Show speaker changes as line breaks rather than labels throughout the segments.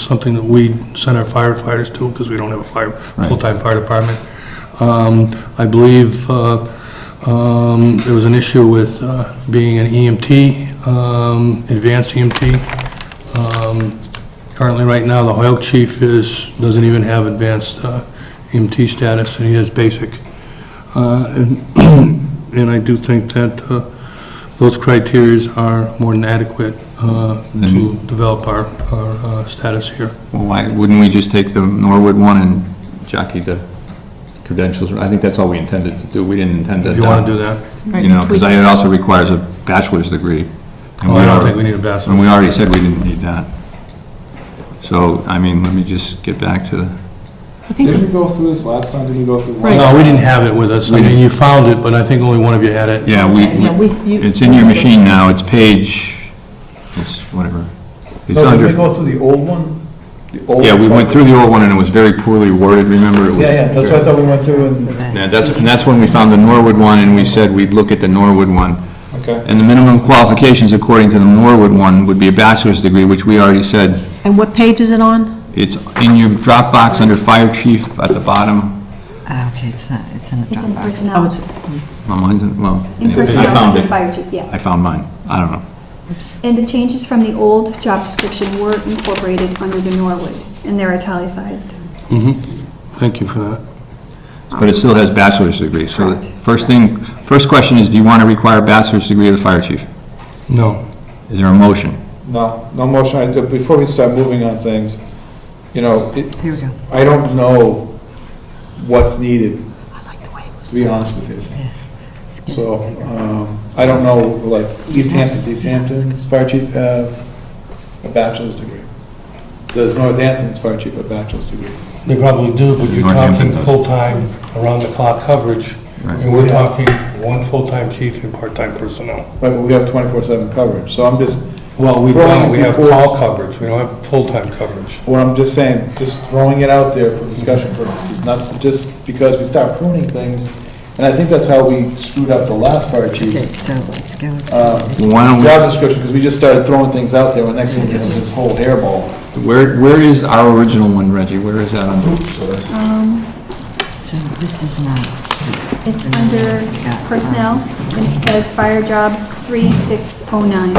something that we send our firefighters to, because we don't have a fire,
Right.
full-time fire department. Um, I believe uh, um, there was an issue with uh, being an EMT, um, advanced EMT. Um, Currently, right now, the Hoyok chief is, doesn't even have advanced uh, EMT status, and he has basic. Uh, And and I do think that uh, those criterias are more than adequate uh, to develop our, our uh, status here.
Well, why wouldn't we just take the Norwood one and jockey the credentials? I think that's all we intended to do. We didn't intend to.
If you want to do that.
You know, because it also requires a bachelor's degree. and
Oh, I don't
already-
think we need a bachelor's.
And we already said we didn't need that. So, I mean, let me just get back to,
I think
Didn't we go through this last time? Didn't we go through? one?
Right.
No, we didn't have it with us. I mean, you found it, but I think only one of you had it.
yeah,
Yeah,
we,
we-
we-
you-
it's in your machine now, it's page, it's whatever. It's
No, did we
under,
go through the old one? The old
yeah, we went
one?
through the old one and it was very poorly worded, remember? It was-
Yeah, yeah, that's what I thought we went through and,
Yeah, that's, and that's when we found the Norwood one and we said we'd look at the Norwood one.
Okay.
And the minimum qualifications according to the Norwood one would be a bachelor's degree, which we already said.
And what page is it on?
It's in your Dropbox under fire chief at the bottom.
Ah, Okay, it's not, it's in the
Oh, It's in
Dropbox.
personnel.
Well, mine's in- well,
In
anyway, I
personnel,
found
under
it.
fire chief, yeah.
I found mine. I don't know.
And the changes from the old job description were incorporated under the Norwood, and they're italicized.
Thank you for that.
But it still has bachelor's degree. So the
Correct.
first thing, first question is, do you want to require a bachelor's degree of the fire chief?
No.
Is there a motion?
No, no motion. I- Before we start moving on things, you know, it-
Here we go.
I don't know what's needed,
I like the way it was.
to be honest with you.
It's getting
So,
bigger.
um, I don't know, like, East Hampton's, East Hampton's fire chief have a bachelor's degree. Does Northampton's fire chief have a bachelor's degree?
They probably do, but you're
Northampton
talking
does.
full-time, around-the-clock coverage,
Right.
and we're talking one full-time chief and part-time personnel.
Right, but we have 24/7 coverage, so I'm just,
Well, we
Throwing
don't,
it
we have
before-
call coverage, we don't have full-time coverage.
what I'm just saying, just throwing it out there for discussion purposes, not just because we start pruning things, and I think that's how we screwed up the last fire
Okay,
chief.
so let's go.
um,
Why don't we,
job description, because we just started throwing things out there, and next thing you know, this whole hairball.
where, where is our original one, Reggie? Where is that under?
So this is uh, not.
It's under
Yeah.
personnel, and it says fire job 3609,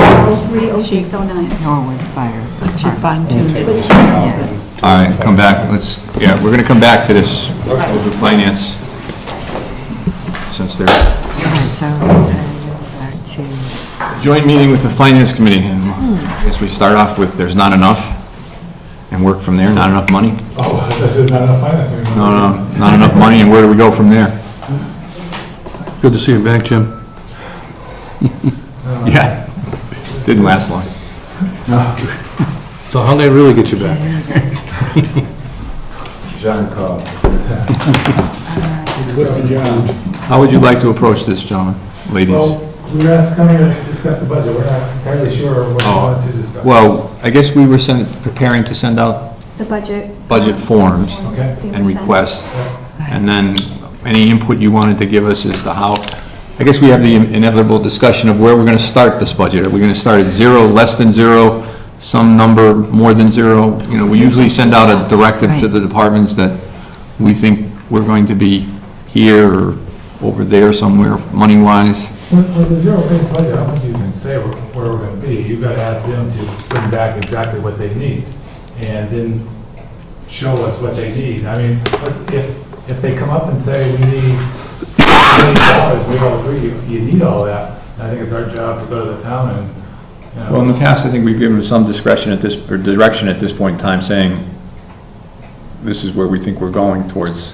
030609.
Norwood Fire. Department.
All right, come back, let's, yeah, we're going to come back to this, the finance, since they're,
All right, so uh, back to.
joint meeting with the finance committee, and I guess we start off with there's not enough, and work from there, not enough money?
Oh, this is not enough finance.
No, no, not enough money, and where do we go from there?
Good to see you back, Jim.
Yeah, didn't last long.
So how'd they really get you back?
John Cobb.
Twisted your arm.
How would you like to approach this, gentlemen, ladies?
Well, we were asked to come here to discuss the budget, we're not entirely sure what we
Oh,
want to discuss.
Well, I guess we were sent, preparing to send out
The budget.
budget forms
Okay.
They were
and
sent.
requests, and then any input you wanted to give us as to how, I guess we have the inevitable discussion of where we're gonna start this budget. Are we gonna start at zero, less than zero, some number more than zero? You know, we usually send out a directive to the departments that we think we're going to be here or over there somewhere, money-wise.
With with the zero-based budget, I don't think you can say where where we're gonna be. You've gotta ask them to bring back exactly what they need, and then show us what they need. I mean, if- if, if they come up and say, we need million dollars, we all agree, you, you need all that, I think it's our job to go to the town and, you know.
Well, in the past, I think we've given some discretion at this, or direction at this point in time, saying, this is where we think we're going towards.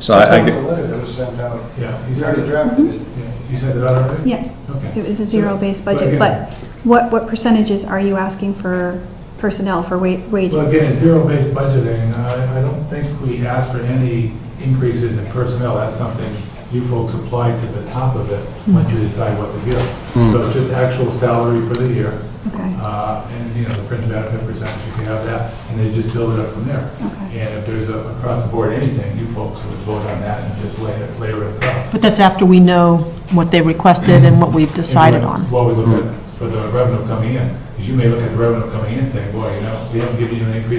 So I, I get-
letter that was sent out. Yeah. You
already
drafted it. You sent it out already?
Yeah,
Okay.
it was a zero-based budget,
again-
but what, what percentages are you asking for personnel, for wa-
Well, again,
wages?
it's zero-based budgeting, I, I don't think we asked for any increases in personnel, that's something you folks applied to the top of it, once you decide what to give. So it's just actual salary for the year,
Okay,
uh, and, you know, the fringe benefit percentage, if you have that, and they just build it up from there.
Okay.
And if there's a, across the board anything, you folks would vote on that and just layer, layer it across.
But that's after we know what they requested and what we've decided
And
on.
What we look at for the revenue coming in, because you may look at the revenue coming in and say, boy, you know, we haven't given you an increase